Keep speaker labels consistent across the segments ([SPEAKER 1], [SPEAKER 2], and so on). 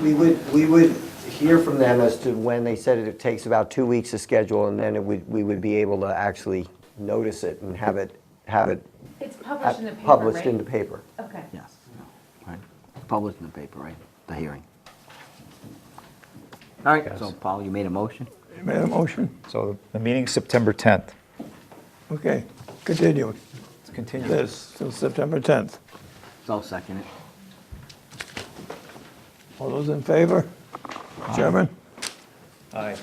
[SPEAKER 1] we would, we would hear from them as to when they said it, it takes about two weeks to schedule, and then it would, we would be able to actually notice it and have it, have it
[SPEAKER 2] It's published in the paper,
[SPEAKER 1] published
[SPEAKER 2] right?
[SPEAKER 1] in the paper.
[SPEAKER 2] Okay.
[SPEAKER 3] Yes, right, published in the paper, right, the hearing. All right, so Paul, you made a motion?
[SPEAKER 4] You made a motion?
[SPEAKER 5] So the meeting's September 10th.
[SPEAKER 4] Okay, continue
[SPEAKER 5] Let's continue.
[SPEAKER 4] this till September 10th.
[SPEAKER 3] So I'll second it.
[SPEAKER 4] All those in favor? Chairman?
[SPEAKER 5] Aye.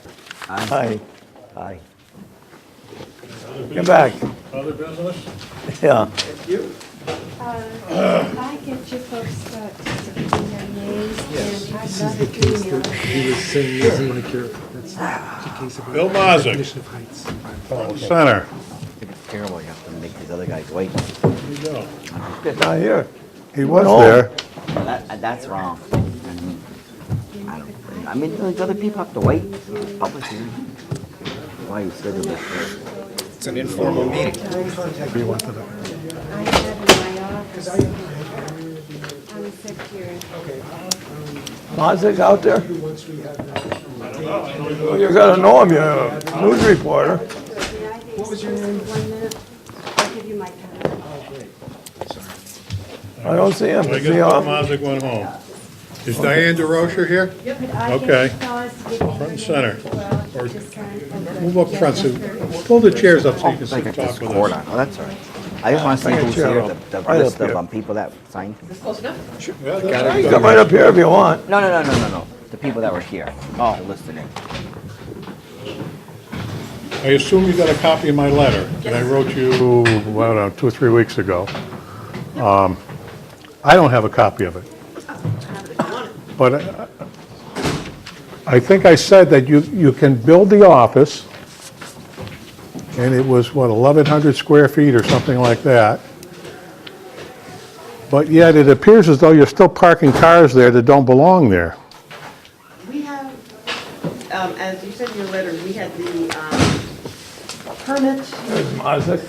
[SPEAKER 3] Aye.
[SPEAKER 4] Aye.
[SPEAKER 1] Aye.
[SPEAKER 4] Come back.
[SPEAKER 6] Other business?
[SPEAKER 4] Yeah.
[SPEAKER 7] Uh, I get you folks the names and I'd love it to email.
[SPEAKER 8] He was saying he doesn't want to cure it. That's the case of.
[SPEAKER 6] Bill Mazick.
[SPEAKER 8] Definition of heights.
[SPEAKER 6] Center.
[SPEAKER 3] It's terrible, you have to make these other guys wait.
[SPEAKER 6] Here you go.
[SPEAKER 4] Not here.
[SPEAKER 6] He was
[SPEAKER 4] No.
[SPEAKER 6] there.
[SPEAKER 3] That, that's wrong. I don't, I mean, those other people have to wait, It's public hearing. Why you schedule this?
[SPEAKER 7] I have in my office. I'm sick here.
[SPEAKER 4] Mazick out there? Well, You gotta know him, you're a news reporter.
[SPEAKER 7] What was your name? One minute. I'll give you my time.
[SPEAKER 4] I don't see him.
[SPEAKER 6] I guess
[SPEAKER 4] Is
[SPEAKER 6] Bill
[SPEAKER 4] he on?
[SPEAKER 6] Mazick went home. Is Diane DeRocher here?
[SPEAKER 7] But I get
[SPEAKER 6] Okay.
[SPEAKER 7] Shaw's to give you
[SPEAKER 6] Front and
[SPEAKER 7] your
[SPEAKER 6] center.
[SPEAKER 7] name as well. Just sign over.
[SPEAKER 6] Move up
[SPEAKER 7] Yeah,
[SPEAKER 6] front, so,
[SPEAKER 7] that's her.
[SPEAKER 6] pull the chairs up so you can
[SPEAKER 3] I
[SPEAKER 6] sit
[SPEAKER 3] got
[SPEAKER 6] and
[SPEAKER 3] this
[SPEAKER 6] talk with
[SPEAKER 3] cord
[SPEAKER 6] us.
[SPEAKER 3] on, oh, that's all right. I just want to see
[SPEAKER 4] Bring a
[SPEAKER 3] who's
[SPEAKER 4] chair
[SPEAKER 3] here,
[SPEAKER 4] up.
[SPEAKER 3] the the
[SPEAKER 4] Right up
[SPEAKER 3] list of
[SPEAKER 4] here.
[SPEAKER 3] um, people that signed.
[SPEAKER 6] Yeah, that's
[SPEAKER 4] You
[SPEAKER 6] right.
[SPEAKER 4] can Come right up here if you want.
[SPEAKER 3] No, no, no, no, no, no, the people that were here, oh, listed in.
[SPEAKER 6] I assume you got a copy of my letter that I wrote you, well, I don't know, two or three weeks ago. Um, I don't have a copy of it. But I- I think I said that you, you can build the office, and it was, what, 1,100 square feet or something like that. But yet, it appears as though you're still parking cars there that don't belong there.
[SPEAKER 9] We have, um, as you said in your letter, we had the, um, permit
[SPEAKER 4] There's Mazick.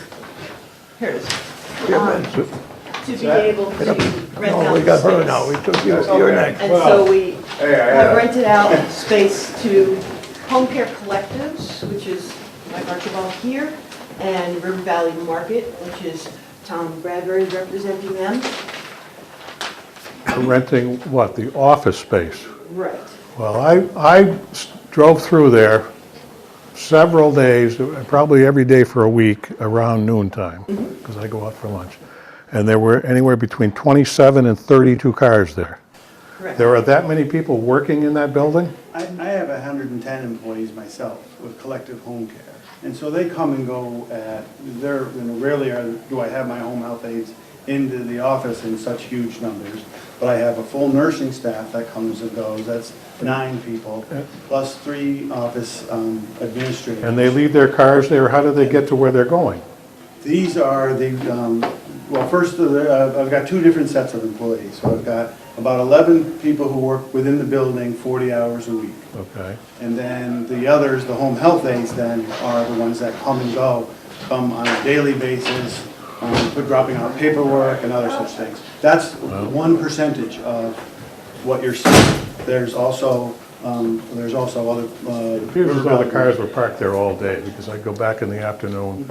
[SPEAKER 9] here it is,
[SPEAKER 6] Uh,
[SPEAKER 4] Chairman.
[SPEAKER 9] to be able to rent
[SPEAKER 4] No,
[SPEAKER 9] out
[SPEAKER 4] we got her
[SPEAKER 9] space.
[SPEAKER 4] now. We took you, you're next.
[SPEAKER 9] And so we have rented out space to Home Care Collectives, which is Mike Archibald here, and River Valley Market, which is Tom Bradbury representing them.
[SPEAKER 6] Renting, what, the office space?
[SPEAKER 9] Right.
[SPEAKER 6] Well, I, I s- drove through there several days, probably every day for a week, around noon time, because I go out for lunch. And there were anywhere between 27 and 32 cars there.
[SPEAKER 9] Correct.
[SPEAKER 6] There are that many people working in that building?
[SPEAKER 10] I, I have hundred and ten employees myself with collective home care. And so they come and go at, they're, you know, rarely are, do I have my home health aides into the office in such huge numbers. But I have a full nursing staff that comes and goes, that's nine people, plus three office um, administrators.
[SPEAKER 6] And they leave their cars there, how do they get to where they're going?
[SPEAKER 10] These are the, um, well, first, of the- uh, I've got two different sets of employees. So I've got about eleven people who work within the building forty hours a week.
[SPEAKER 6] Okay.
[SPEAKER 10] And then the others, the home health aides then, are the ones that come and go, come on a daily basis, um, for dropping out paperwork and other such things. That's one percentage of what you're seeing. There's also, um, there's also other. uh, It
[SPEAKER 6] Appears as though the cars were parked there all day, because I go back in the afternoon,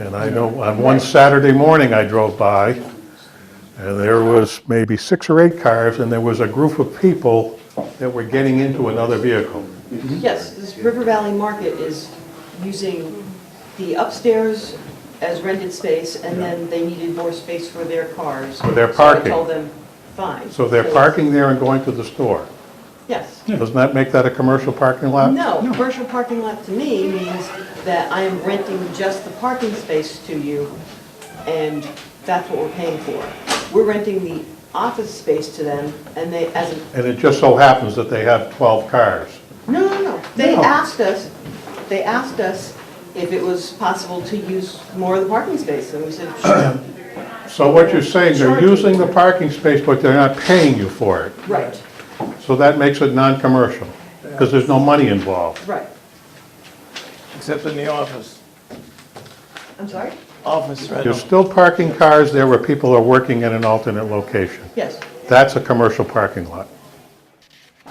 [SPEAKER 6] and I know, on one Saturday morning, I drove by, and there was maybe six or eight cars, and there was a group of people that were getting into another vehicle.
[SPEAKER 9] Yes, this River Valley Market is using the upstairs as rented space, and then they needed more space for their cars.
[SPEAKER 6] For their
[SPEAKER 9] So
[SPEAKER 6] parking.
[SPEAKER 9] I told them, fine.
[SPEAKER 6] So they're parking there and going to the store.
[SPEAKER 9] Yes.
[SPEAKER 6] Doesn't that make that a commercial parking lot?
[SPEAKER 9] No, commercial parking lot to me means that I am renting just the parking space to you, and that's what we're paying for. We're renting the office space to them, and they, as an
[SPEAKER 6] And it just so happens that they have 12 cars.
[SPEAKER 9] No, no, no. They
[SPEAKER 6] No.
[SPEAKER 9] asked us, they asked us if it was possible to use more of the parking space, and we said, sure.
[SPEAKER 6] So what you're saying, they're using the parking space, but they're not paying you for it.
[SPEAKER 9] Right,
[SPEAKER 6] So that makes it non-commercial, because there's no money involved.
[SPEAKER 9] right.
[SPEAKER 4] Except in the office.
[SPEAKER 9] I'm sorry?
[SPEAKER 4] Office
[SPEAKER 6] You're
[SPEAKER 4] rental.
[SPEAKER 6] still parking cars there where people are working in an alternate location.
[SPEAKER 9] Yes,
[SPEAKER 6] That's a commercial parking lot.